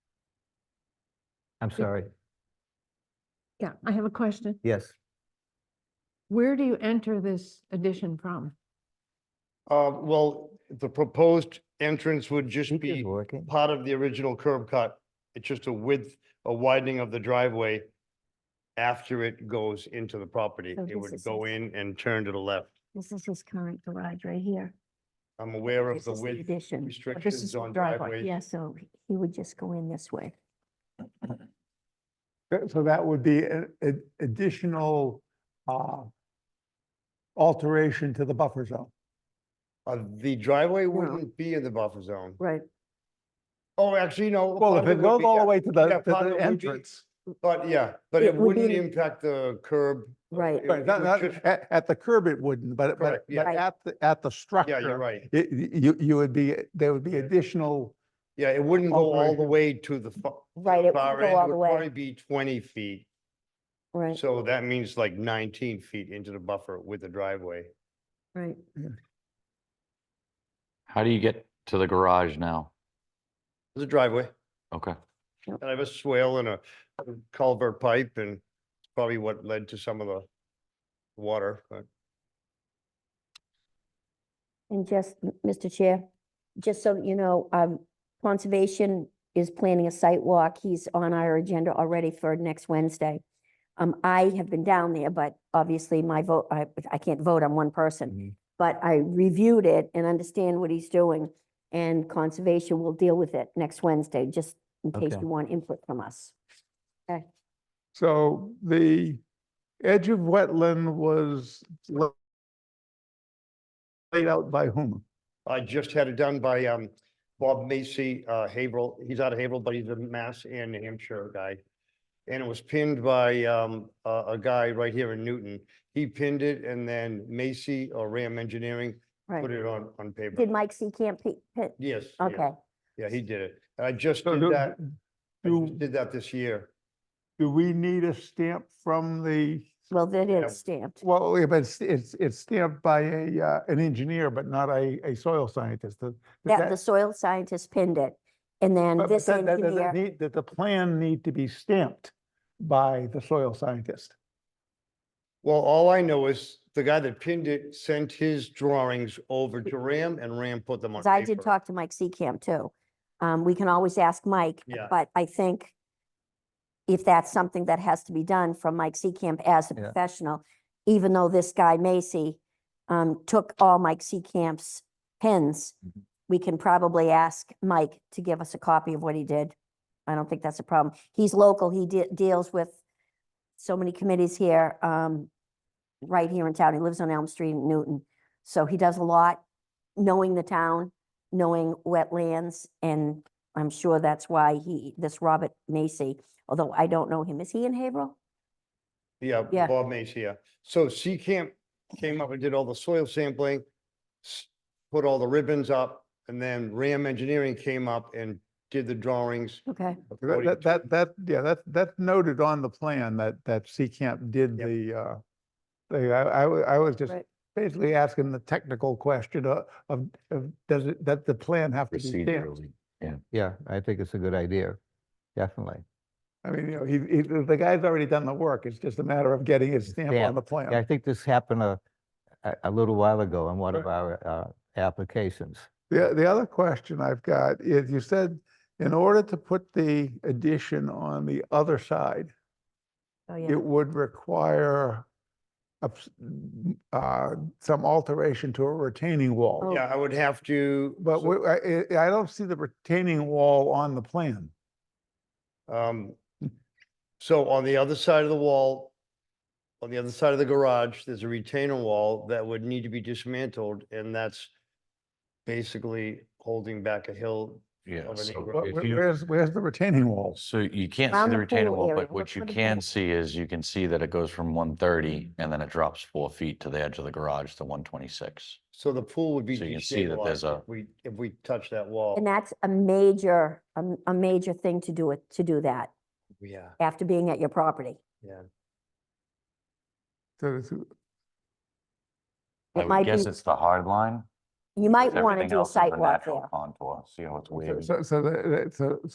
I'm sorry. Yeah, I have a question. Yes. Where do you enter this addition from? Uh, well, the proposed entrance would just Speaker's be working. part of the original curb cut. It's just a width, a widening of the driveway after it goes into the property. So It this would is go his- in and turn to the left. This is his current garage right here. I'm aware of This the is the width addition, but this restrictions is the on driveway. driveways. Yeah, so he would just go in this way. That- So that would be a- a- additional uh, alteration to the buffer zone. Uh, the driveway wouldn't be in the buffer zone. Right. Oh, actually, no. Well, part if of it would goes be, all yeah. the way to the, yeah, to part of it the would be- entrance, But yeah, but It it would wouldn't be- impact the curb. Right. It right, would- not- it not- would just- at, at the curb it wouldn't, but, but, Correct, yeah. but at, the at the structure. Yeah, you're right. it- You, you would be, there would be additional, Yeah, it wouldn't go all the Operation. way to the fa- Right, it far would go end. all It the would probably way, be twenty feet. right, So that means like nineteen feet into the buffer with the driveway. right. How do you get to the garage now? There's a driveway Okay. and I have a swale and a culvert pipe and it's probably what led to some of the water, but And just, m- Mr. Chair, just so that you know, um, Conservation is planning a site walk. He's on our agenda already for next Wednesday. Um, I have been down there, but obviously my vote, I, I can't vote on one Mm-hmm. person. But I reviewed it and understand what he's doing, and Conservation will deal with it next Wednesday, just in case Okay. you want input from us. so the edge of wetland was la- laid out by whom? I just had it done by, um, Bob Macy, uh, Haverhill. He's out of Haverhill, but he's a Mass and New Hampshire guy. And it was pinned by, um, a, a guy right here in Newton. He pinned it and then Macy or Ram Engineering Right. put it on, on paper. Did Mike C. Camp, Pe- Pe- Yes. yes. okay, Yeah, he did it. And I just So did do- that, I Do, just did that this year. do we need a stamp from the well, that Yeah. is stamped, Well, yeah, but it's, it's, it's stamped by a, uh, an engineer, but not a, a soil scientist. Does- does that, the soil scientist pinned it, and then but- but this that- that doesn't engineer. need- Did the plan need to be stamped by the soil scientist? Well, all I know is the guy that pinned it sent his drawings over to Ram and Ram put them on Because I did paper. talk to Mike Seacamp too. Um, we can always ask Mike, Yeah. but I think if that's something that has to be done from Mike Seacamp as a Yeah. professional, even though this guy Macy um, took all Mike Seacamp's pins, Mhm. we can probably ask Mike to give us a copy of what he did. I don't think that's a problem. He's local. He de- deals with so many committees here, um, right here in town. He lives on Elm Street in Newton. So he does a lot knowing the town, knowing wetlands, and I'm sure that's why he, this Robert Macy, although I don't know him, is he in Haverhill? Yeah, Yeah. Bob Mace here. So C Camp came up and did all the soil sampling, s- put all the ribbons up, and then Ram Engineering came up and did the drawings. Okay, That, according that- to- that, that, yeah, that, that's noted on the plan that, that Seacamp did Yep. the, uh, thing. I, I, wa- I was just Right. basically asking the technical question of, of, of does it, that the plan have to be stamped? Procedurally. Yeah, I think it's a good idea. Definitely. I mean, you know, he, he, the guy's already done the work. It's just a matter of getting his stamp on Stamp. the plan. Yeah, I think this happened a, a- a little while ago on one of Right. our uh, applications. The, the other question I've got is you said in order to put the addition on the other side, oh, yeah. it would require a s- m- uh, some alteration to a retaining wall. Oh. Yeah, I would have to. But so- we- I, I I don't see the retaining wall on the plan. Um, so on the other side of the wall, on the other side of the garage, there's a retainer wall that would need to be dismantled, and that's basically holding back a hill. Yeah. Of an so acre. Wh- if wh- you- Where's, where's the retaining walls? So you can't Around see the the retaining pool wall, area, but we're what you putting can it- see is you can see that it goes from one thirty and then it drops four feet to the edge of the garage to one twenty-six. So the pool would be So you can see that there's destabilized a- if we, if we touch that wall. And that's a major, a, m- a major thing to do it, to do that Yeah, after being at your property. yeah. So it's- I It would might be, guess it's the hard line. you might because want to everything do a else is the site walk natural there. Contour, see how it's so- wavy. So, so, the- the- so,